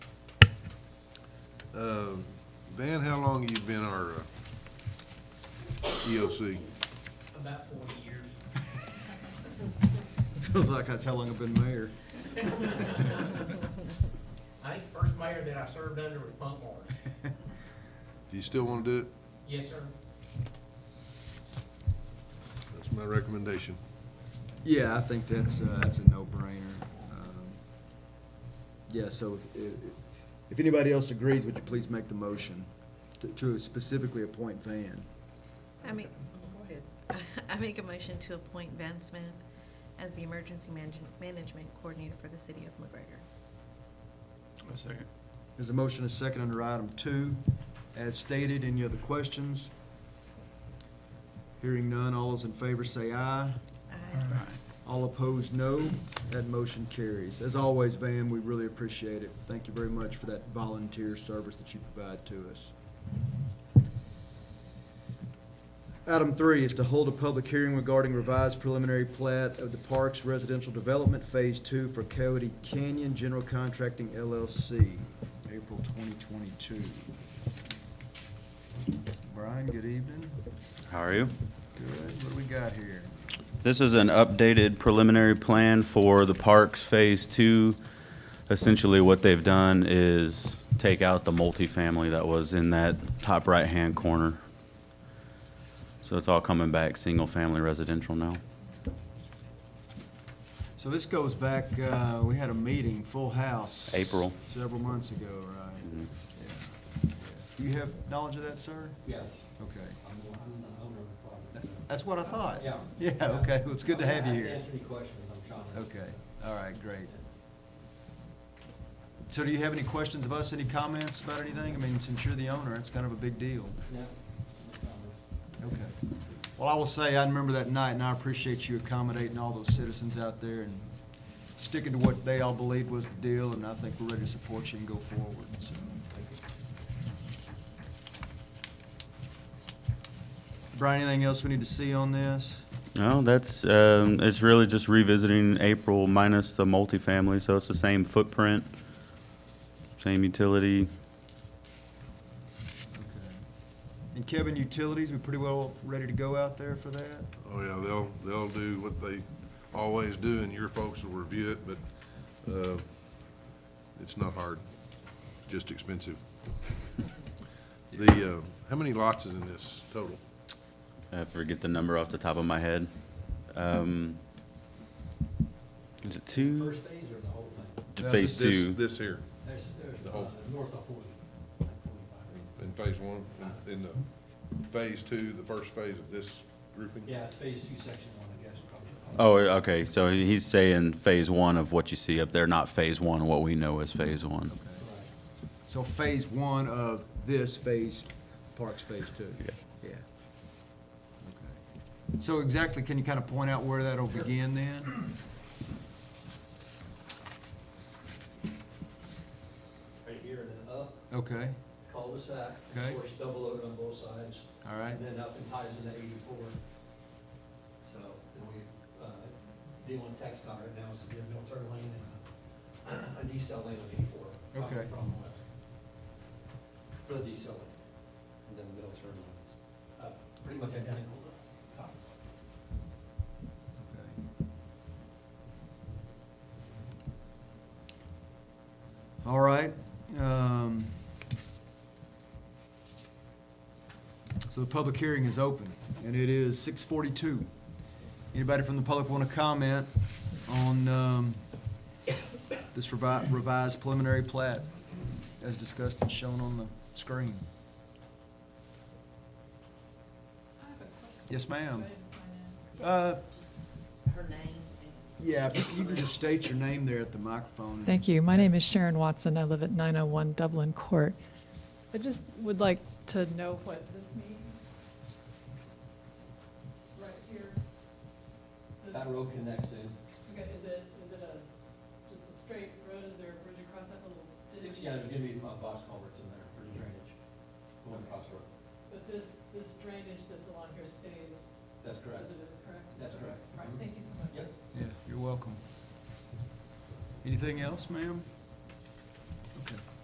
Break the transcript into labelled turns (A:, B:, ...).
A: Uh, Van, how long you been our E uh, EOC?
B: About forty years.
C: Feels like that's how long I've been mayor.
B: I think the first mayor that I served under was Punk Morris.
A: Do you still want to do it?
B: Yes, sir.
A: That's my recommendation.
C: Yeah, I think that's, uh, that's a no-brainer. Um, Yeah, so if, if- if anybody else agrees, would you please make the motion to- to specifically appoint Van?
D: I make, go ahead. I make a motion to appoint Van Smith as the emergency manage- management coordinator for the city of McGregor.
E: A second.
C: There's a motion, and a second under item two. As stated, any other questions? Hearing none, all those in favor say aye.
D: Aye.
C: All opposed, no. That motion carries. As always, Van, we really appreciate it. Thank you very much for that volunteer service that you provide to us. Item three is to hold a public hearing regarding revised preliminary plat of the Parks Residential Development Phase Two for Coyote Canyon General Contracting LLC, April twenty twenty-two. Brian, good evening.
F: How are you?
C: Good. What do we got here?
F: This is an updated preliminary plan for the parks Phase Two. Essentially, what they've done is take out the multifamily that was in that top right-hand corner. So it's all coming back, single-family residential now.
C: So this goes back, uh, we had a meeting, full house.
F: April.
C: Several months ago, right?
F: Mhm.
C: Yeah. Do you have knowledge of that, sir?
G: Yes,
C: Okay.
G: I'm the I'm the owner of the property.
C: That's what I thought.
G: Yeah.
C: Yeah, okay. Well, it's good to have you
G: I can
C: here.
G: answer any questions, I'm Sean.
C: Okay, all right, great. So do you have any questions of us, any comments about anything? I mean, since you're the owner, it's kind of a big deal.
G: No, no comments.
C: Okay. Well, I will say, I remember that night, and I appreciate you accommodating all those citizens out there and sticking to what they all believed was the deal, and I think we're ready to support you and go forward, so. Brian, anything else we need to see on this?
F: No, that's, um, it's really just revisiting April minus the multifamily, so it's the same footprint, same utility.
C: Okay. And Kevin, utilities, we pretty well ready to go out there for that?
A: Oh, yeah, they'll, they'll do what they always do, and your folks will review it, but uh, it's not hard, just expensive. The, uh, how many lots is in this total?
F: I forget the number off the top of my head. Um, Is it two?
G: First phase or the whole thing?
F: To
C: No,
F: phase
A: This-
F: two,
A: This here,
G: There's, there's,
A: The
G: uh,
A: whole-
G: north of forty, like forty-five.
A: in phase one, in- in the phase two, the first phase of this grouping?
G: Yeah, it's phase two, section one, I guess, probably.
F: oh, okay, so he's saying phase one of what you see up there, not phase one, what we know as phase one.
G: Right.
C: So phase one of this phase, Parks Phase Two?
F: Yeah.
C: Yeah. Okay. So exactly, can you kind of point out where that'll begin then?
G: Right here and then up,
C: Okay,
G: cul-de-sac,
C: Okay.
G: of course, double loaded on both sides.
C: all right,
G: And then up and ties into eighty-four. So, then we, uh, deal in text car right now, so we have no turn lane and a- a decel lane on eighty-four. coming
C: Okay.
G: From the west. For the decel lane, and then the middle turn lane is, uh, pretty much identical to top.
C: okay. All right, um. So the public hearing is open, and it is six forty-two. Anybody from the public want to comment on, um, this revi- revised preliminary plat as discussed and shown on the screen?
H: I have a question.
C: Yes, ma'am.
H: Go ahead and sign in.
C: Uh,
I: her name and
C: yeah, if you can just state your name there at the microphone.
H: Thank you. My name is Sharon Watson. I live at 901 Dublin Court. I just would like to know what this means. Right here. This-
G: That road connects in.
H: Okay, is it, is it a, just a straight road? Is there a bridge across that little ditch?
G: Yeah, there's gonna be uh, box culverts in there for the drainage, going across the road.
H: But this, this drainage that's along here stays
G: That's correct.
H: as it is, correct?
G: That's correct.
H: All right, thank you so much.
G: Yep.
C: Yeah, you're welcome. Anything else, ma'am?